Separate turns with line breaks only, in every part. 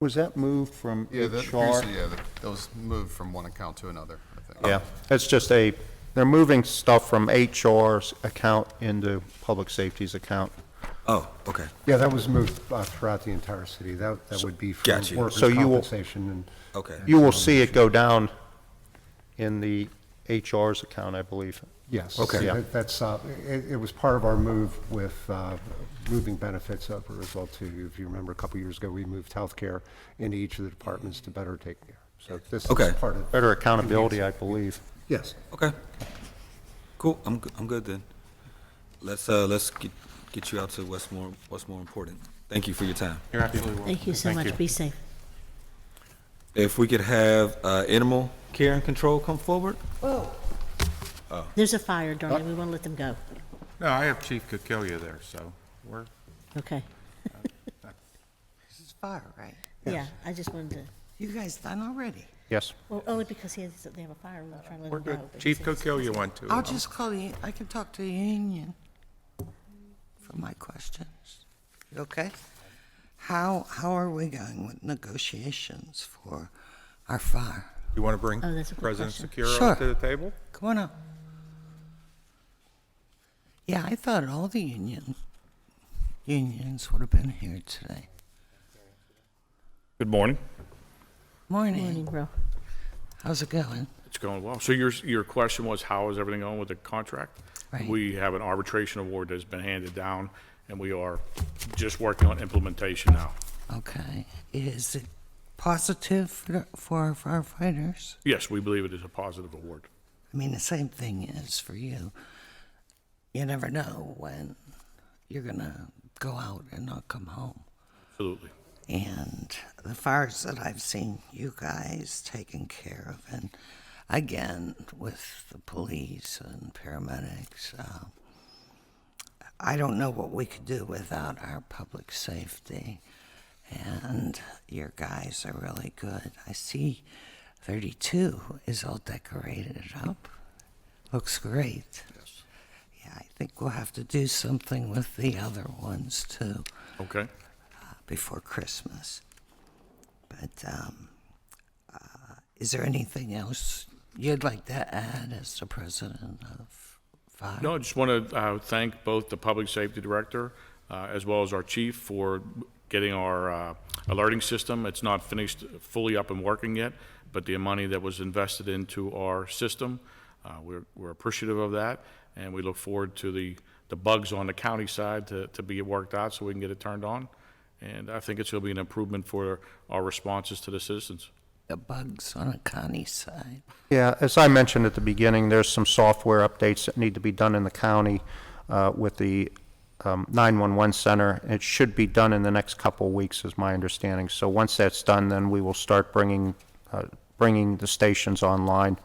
Was that moved from
Yeah, that appears,
HR?
to- yeah, that- that was moved from one account to another, I think.
Yeah, it's just a, they're moving stuff from HR's account into Public Safety's account.
Oh, okay.
Yeah, that was moved uh, throughout the entire city. That, that would be for
Got you.
workers'
So you will-
compensation and.
Okay.
You will see it go down in the HR's account, I believe.
Yes.
Okay.
that- That's, uh, it, it was part of our move with uh, moving benefits over as well too. If you remember, a couple years ago, we moved healthcare into each of the departments to better take care. So this is
Okay.
part of.
Better accountability, I believe.
Yes.
Okay. Cool. I'm g- I'm good then. Let's uh let's get get you out to what's more what's more important. Thank you for your time.
You're absolutely welcome.
Thank you so much. Be safe.
If we could have uh, animal care and control come forward.
There's a fire, darling. We want to let them go.
Oh. No, I have Chief Kokolia there, so we're,
Okay.
It's fire, right?
Yeah, I just wanted to,
You guys done already?
Yes.
well, only because he has, they have a fire, we're trying to
we're
let them
good.
know. but
Chief
it's- it's-
Kokolia want to.
I'll just call the, I can talk to the union for my questions. You Okay? How, how are we going with negotiations for our fire?
You want to bring
Oh, that's a good
President
question.
Secura
Sure.
to the table?
Come on up. Yeah, I thought all the union, unions would have been here today.
Good morning.
Morning,
Morning,
bro.
how's it going?
It's going well. So your, your question was, how is everything going with the contract?
Right.
We have an arbitration award that's been handed down, and we are just working on implementation now.
Okay, is it positive for the- for our firefighters?
Yes, we believe it is a positive award.
I mean, the same thing is for you. You never know when you're going to go out and not come home.
Absolutely.
And the fires that I've seen you guys taking care of, and again with the police and paramedics, uh, I don't know what we could do without our public safety. And your guys are really good. I see 32 is all decorated up. Looks great. Yeah, I think we'll have to do something with the other ones too
Okay.
before Christmas. But um, uh, is there anything else you'd like to add as the president of Fire?
No, I just want to uh, thank both the public safety director uh, as well as our chief for getting our uh, alerting system. It's not finished fully up and working yet, but the money that was invested into our system, uh, we're, we're appreciative of that, and we look forward to the, the bugs on the county side to, to be worked out so we can get it turned on. And I think it's going to be an improvement for our responses to the citizens.
The bugs on a county side.
Yeah, as I mentioned at the beginning, there's some software updates that need to be done in the county uh, with the um, 911 center. It should be done in the next couple of weeks, is my understanding. So once that's done, then we will start bringing, uh, bringing the stations online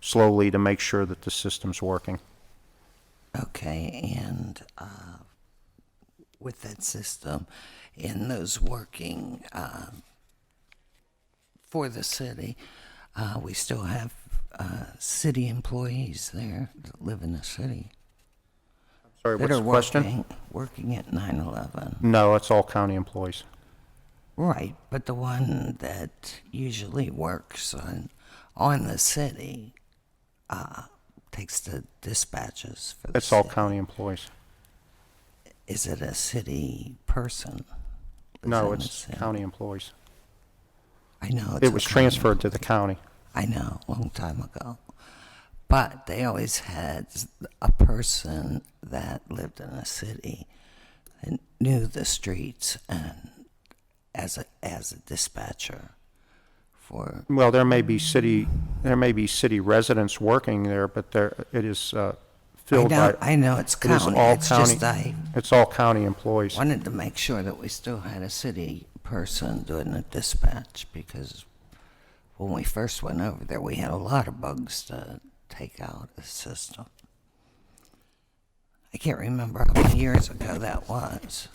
slowly to make sure that the system's working.
Okay, and uh, with that system and those working uh, for the city, uh, we still have uh, city employees there that live in the city.
Sorry,
that
what's the question?
are Working, working at 9 11.
No, it's all county employees.
Right, but the one that usually works on on the city uh, takes the dispatches for the
It's all
city.
county employees.
Is it a city person? that's
No,
in the
it's
city?
county employees.
I know
It
it's a
was
county.
transferred to the county.
I know, a long time ago. But they always had a person that lived in a city and knew the streets and as a as a dispatcher for
Well, there may be city, there may be city residents working there, but there, it is uh, filled by.
I know, I know it's
it is
county.
all
it's
county-
just I
It's all county employees.
wanted to make sure that we still had a city person doing the dispatch because when we first went over there, we had a lot of bugs to take out of the system. I can't remember how many years ago that was.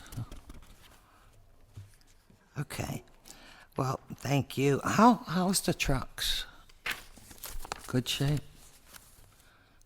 Okay. Well, thank you. How how's the trucks? Good shape.